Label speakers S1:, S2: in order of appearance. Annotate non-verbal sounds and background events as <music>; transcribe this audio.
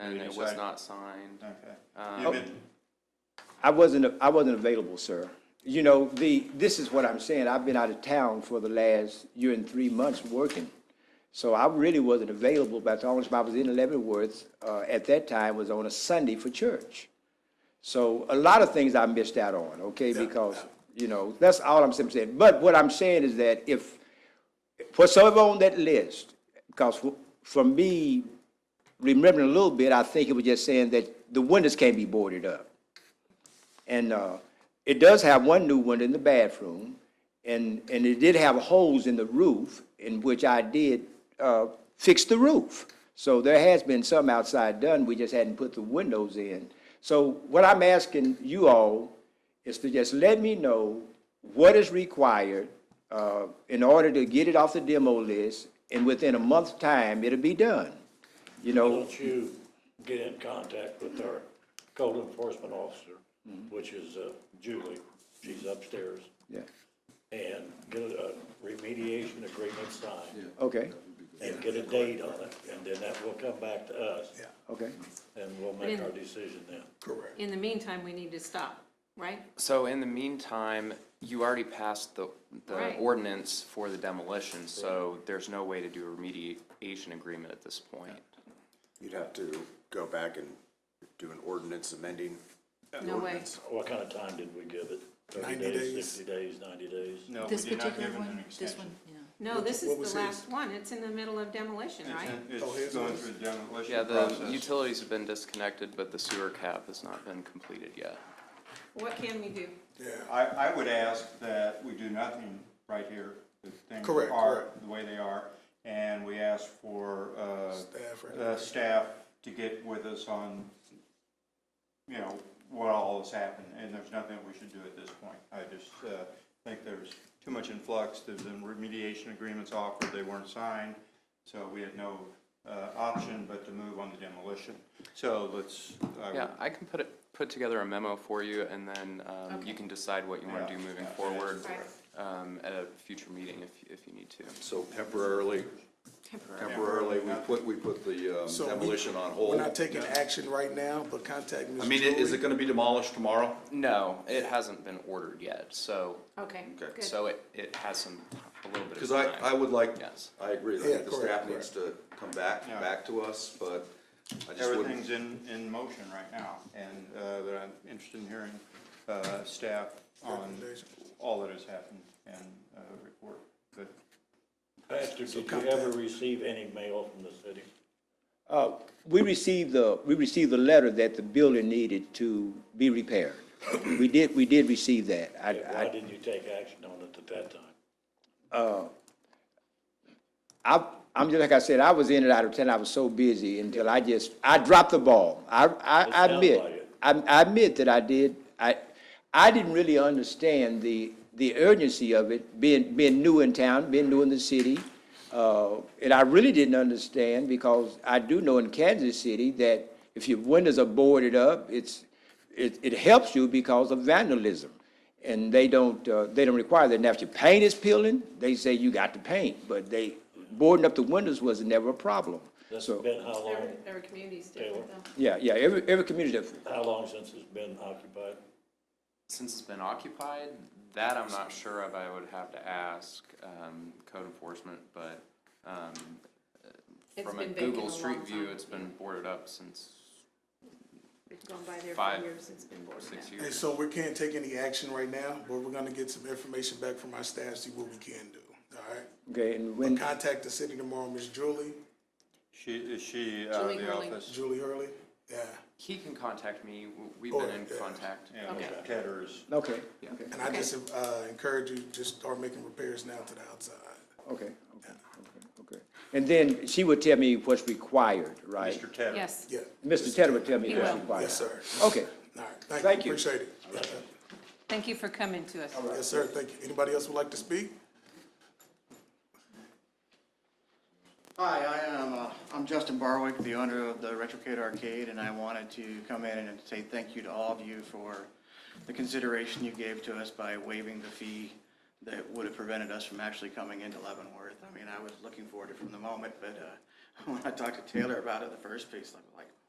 S1: and
S2: you
S1: it was
S2: decide-
S1: not signed.
S2: Okay. You've been,
S3: I wasn't, I wasn't available, sir. You know, the, this is what I'm saying, I've been out of town for the last year and three months working. So I really wasn't available, but the only time I was in Leavenworth, uh, at that time was on a Sunday for church. So a lot of things I missed out on, okay, because, you know, that's all I'm simply saying. But what I'm saying is that if, for some of on that list, because for- for me, remembering a little bit, I think it was just saying that the windows can't be boarded up. And uh, it does have one new window in the bathroom, and, and it did have holes in the roof, in which I did uh, fix the roof. So there has been some outside done, we just hadn't put the windows in. So what I'm asking you all is to just let me know what is required uh, in order to get it off the demo list, and within a month's time, it'll be done. You know?
S4: Don't you get in contact with our code enforcement officer, which is uh, Julie, she's upstairs,
S3: Yeah,
S4: and get a remediation agreement signed,
S3: okay,
S4: and get a date on it, and then that will come back to us.
S3: okay.
S4: And we'll make our decision then.
S5: In the meantime, we need to stop, right?
S1: So in the meantime, you already passed the, the
S5: Right.
S1: ordinance for the demolition, so there's no way to do a remediation agreement at this point.
S6: You'd have to go back and do an ordinance amending. the
S5: No way.
S6: ordinance.
S4: What kind of time did we give it? Thirty
S7: 90 days.
S4: Sixty days, ninety days?
S2: no, we
S8: This
S2: did not
S8: particular
S2: give them an
S8: one, this
S2: extension.
S8: one, yeah.
S5: No, this
S7: what
S5: is
S7: was
S5: the
S7: his?
S5: last one. It's in the middle of demolition,
S2: It's
S5: right?
S2: in-
S7: Oh, here's
S2: It's going
S7: ours.
S2: through the demolition
S1: Yeah, the
S2: process.
S1: utilities have been disconnected, but the sewer cap has not been completed yet.
S5: What can we do?
S2: I, I would ask that we do nothing right here. The things
S7: Correct,
S2: are
S7: correct.
S2: the way they are. And we ask for, uh,
S7: Staff recommendation.
S2: uh, staff to get with us on, you know, what all has happened. And there's nothing we should do at this point. I just, uh, think there's too much in flux. There's been remediation agreements offered. They weren't signed. So we had no, uh, option but to move on the demolition. So let's, I
S1: Yeah,
S2: would
S1: I can put it, put together a memo for you, and then, um, you can decide what you wanna
S2: Yeah,
S1: do moving
S2: yeah,
S1: forward,
S5: Right.
S1: um, at a future meeting if, if you need to.
S6: So temporarily, temporarily, we put, we put the um,
S7: So we-
S6: demolition on
S7: We're
S6: hold.
S7: not taking action right now, but contact Ms.
S6: I mean, i- is it
S7: Drury.
S6: gonna be demolished tomorrow?
S1: No, it hasn't been ordered yet, so,
S5: Okay,
S6: Okay.
S5: good.
S1: so it, it has some, a little bit of
S6: Because I,
S1: time.
S6: I would like,
S1: Yes.
S6: I agree, I
S7: Yeah,
S6: think the staff
S7: correct,
S6: needs to come back,
S2: Yeah.
S6: back to us, but I just wouldn't.
S2: Everything's in, in motion right now, and, uh, but I'm interested in hearing, uh, staff on
S7: Recommendation.
S2: all that has happened and, uh, report. But
S4: Pastor, did you ever receive any mail from the city?
S3: Uh, We received the, we received the letter that the building needed to be repaired. We did, we did receive that. I,
S4: Why
S3: I,
S4: didn't you take action on it at that time?
S3: I- I'm just, like I said, I was in and out of town, I was so busy until I just, I dropped the ball. I, I I
S4: sounds
S3: admit,
S4: like it.
S3: I I admit that I did, I, I didn't really understand the, the urgency of it, being, being new in town, being new in the city. Uh, And I really didn't understand, because I do know in Kansas City that if your windows are boarded up, it's, it, it helps you because of vandalism. And they don't, uh, they don't require that. Now, if your paint is peeling, they say you got to paint, but they, boarding up the windows was never a problem.
S4: That's
S3: So,
S4: been how long,
S5: Every, every community's different though.
S3: yeah, yeah, every, every community different.
S4: how long since it's been occupied?
S1: Since it's been occupied, that I'm not sure of, I would have to ask, um, code enforcement, but, um,
S5: It's
S1: from a
S5: been vacant
S1: Google
S5: a
S1: Street
S5: long
S1: View,
S5: time.
S1: it's been boarded up since
S5: We've gone by there
S1: Five,
S5: for years. It's been boarded up.
S1: six
S7: And
S1: years.
S7: so we can't take any action right now, but we're gonna get some information back from our staff, see what we can do, all right?
S3: Okay, and
S7: But
S3: when,
S7: Contact the city tomorrow, Ms. Julie,
S2: she, is she out of
S5: Julie
S2: the
S5: Hurley.
S2: office?
S7: Julie Hurley, yeah.
S1: He can contact me, W- we've been
S7: Oh,
S1: in
S7: yeah.
S1: contact.
S2: Yeah,
S5: Okay.
S2: Ted or is-
S3: okay, okay,
S7: And I just, uh, encourage you, just start making repairs now to the outside.
S3: okay, okay, okay. And then she would tell me what's required, right?
S2: Mr. Tedder?
S5: Yes.
S7: Yeah,
S3: Mr. Tedder would tell me
S5: He
S3: what's
S5: will.
S3: required.
S7: yes, sir.
S3: Okay,
S7: All right, thank
S3: Thank you.
S7: you, appreciate it.
S5: Thank you for coming to us.
S7: Yes, sir, thank you. Anybody else would like to speak?
S9: Hi, I am, uh, I'm Justin Barwick, the owner of the Retrocade Arcade, and I wanted to come in and say thank you to all of you for the consideration you gave to us by waiving the fee that would have prevented us from actually coming into <laughs> Leavenworth. I mean, I was looking forward to it from the moment, but, uh, when I talked to Taylor about it the first piece, I'm like,